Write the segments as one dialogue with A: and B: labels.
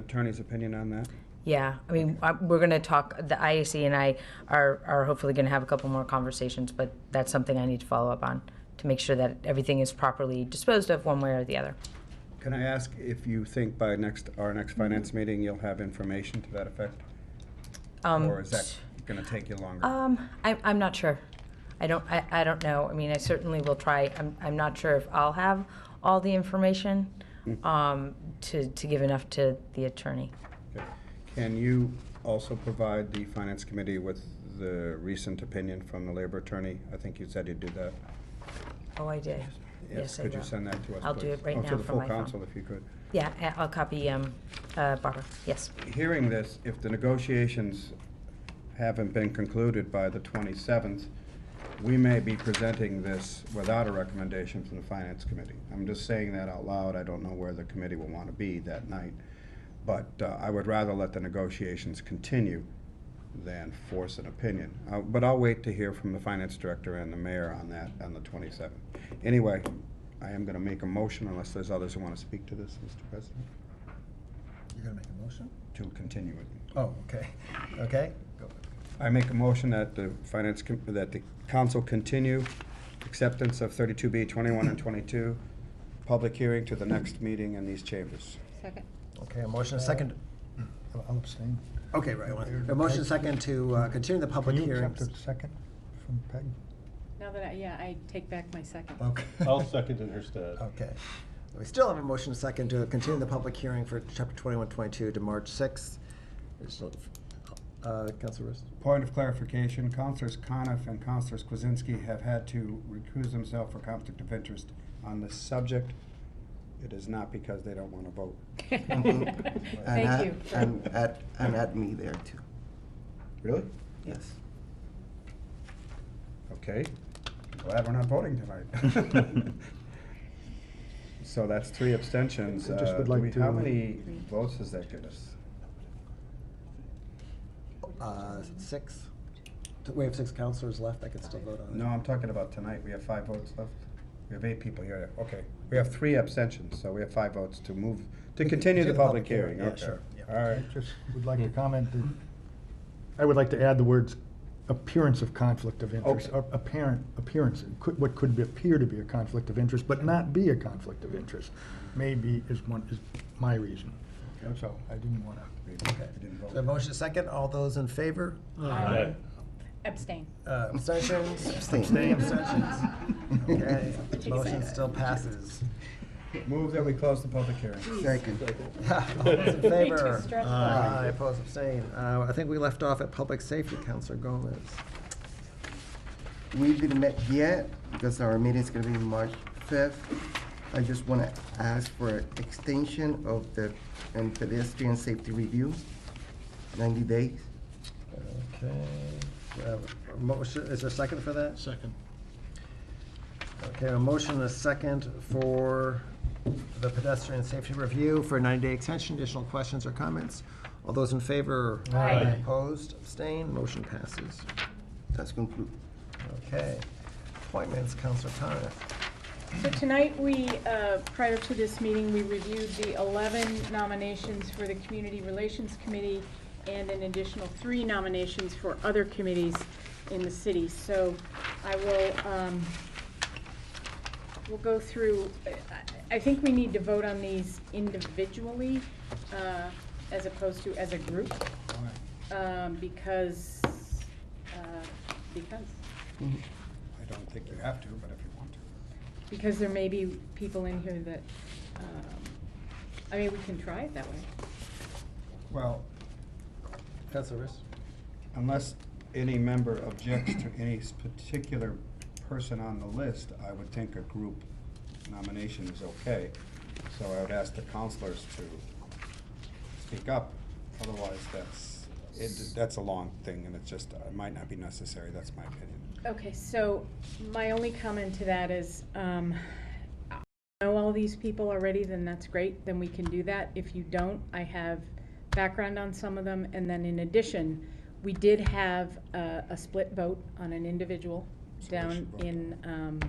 A: attorney's opinion on that.
B: Yeah, I mean, I- we're going to talk, the IAC and I are, are hopefully going to have a couple more conversations, but that's something I need to follow up on to make sure that everything is properly disposed of one way or the other.
A: Can I ask if you think by next, our next
B: Mm-hmm.
A: finance meeting, you'll have information to that effect? Or is that gonna take you longer?
B: Um, I, I'm not sure. I don't, I, I don't know. I mean, I certainly will try. I'm, I'm not sure if I'll have all the information,
A: Hmm.
B: um, to, to give enough to the attorney.
A: Okay. Can you also provide the finance committee with the recent opinion from the labor attorney? I think you said you'd do that.
B: Oh, I did. Yes, I
A: Could you
B: will.
A: send that to us,
B: I'll do
A: please?
B: it right
A: Or
B: now
A: to the
B: from
A: full
B: my phone.
A: council, if you could.
B: Yeah, I- I'll copy, um, uh, Barbara. Yes.
A: hearing this, if the negotiations haven't been concluded by the 27th, we may be presenting this without a recommendation from the Finance Committee. I'm just saying that out loud. I don't know where the committee will want to be that night. But uh, I would rather let the negotiations continue than force an opinion. Uh, But I'll wait to hear from the Finance Director and the Mayor on that on the 27th. Anyway, I am going to make a motion unless there's others who want to speak to this, Mr. President,
C: You're gonna make a motion?
A: to continue it.
C: Oh, okay, okay. Go.
A: I make a motion that the finance, com- that the council continue acceptance of thirty-two B, twenty-one and twenty-two, public hearing to the next meeting in these chambers.
D: Second.
C: Okay, a motion, a second.
E: I'll abstain.
C: Okay, right, a motion, a second to uh, continue the public
E: Can you
C: hearing.
E: accept a second from Peg?
D: Now that I, yeah, I take back my second.
C: Okay.
F: I'll second in her stead.
C: Okay. We still have a motion, a second to continue the public hearing for chapter twenty-one, twenty-two to March sixth. Uh, Council Rist?
A: Point of clarification, Councilors Coniff and Councilors Kwasinski have had to recuse themselves for conflict of interest on this subject. It is not because they don't want to vote.
G: And
D: Thank
G: add-
D: you.
G: And add, and add me there too,
A: Really?
G: yes.
A: Okay. Glad we're not voting tonight. So that's three abstentions.
E: I just
A: Uh,
E: would
A: do
E: like
A: we- How
E: to-
A: many votes does that get us?
C: Uh, six? Do We have six councilors left, I could still vote on it.
A: No, I'm talking about tonight, we have five votes left. We have eight people here, okay. We have three abstentions, so we have five votes to move, to continue the public hearing,
C: yeah,
A: okay.
C: sure,
A: All right,
E: I just would like to comment that, I would like to add the words appearance of conflict of interest,
A: Okay.
E: or apparent, appearance, could- what could be- appear to be a conflict of interest, but not be a conflict of interest, maybe is one, is my reason. So I didn't want to.
C: Okay. So a motion, a second, all those in favor?
F: Aye.
D: Abstain.
C: Uh, Abstentions?
G: Abstain.
C: Abstentions. Okay, motion still passes.
A: move that we close the public hearing.
G: Second.
C: All those in favor?
D: stressful.
C: Aye, opposed, abstain. Uh, I think we left off at public safety, Counselor Gomez.
G: We didn't met yet because our meeting's gonna be March fifth. I just wanna ask for extension of the um, pedestrian safety review, ninety days.
C: Okay. Uh, a Motion, is there a second for that? Second. Okay, a motion and a second for the pedestrian safety review for a 90-day extension. Additional questions or comments? All those in favor?
F: Aye.
C: Opposed, abstained, motion passes.
G: That's concluded.
C: Okay. Appointments, Counselor Coniff.
D: So tonight, we, uh, prior to this meeting, we reviewed the 11 nominations for the Community Relations Committee and an additional three nominations for other committees in the city. So I will, um, we'll go through, I- I think we need to vote on these individually uh, as opposed to as a group. um, Because, uh, because.
A: I don't think you have to, but if you want to.
D: Because there may be people in here that, um, I mean, we can try it that way.
A: Well,
C: Counselor Riss?
A: unless any member objects to any s- particular person on the list, I would think a group nomination is okay. So I would ask the counselors to speak up, otherwise that's, it, that's a long thing and it's just, it might not be necessary, that's my opinion.
D: Okay, so my only comment to that is, um, I know all these people already, then that's great, then we can do that. If you don't, I have background on some of them, and then in addition, we did have a, a split vote on an individual
A: So we
D: down
A: should vote.
D: in, um,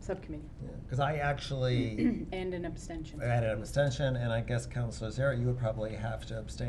D: subcommittee,
C: Because I actually
D: and an abstention.
C: added an abstention, and I guess Counselor Zara, you would probably have to abstain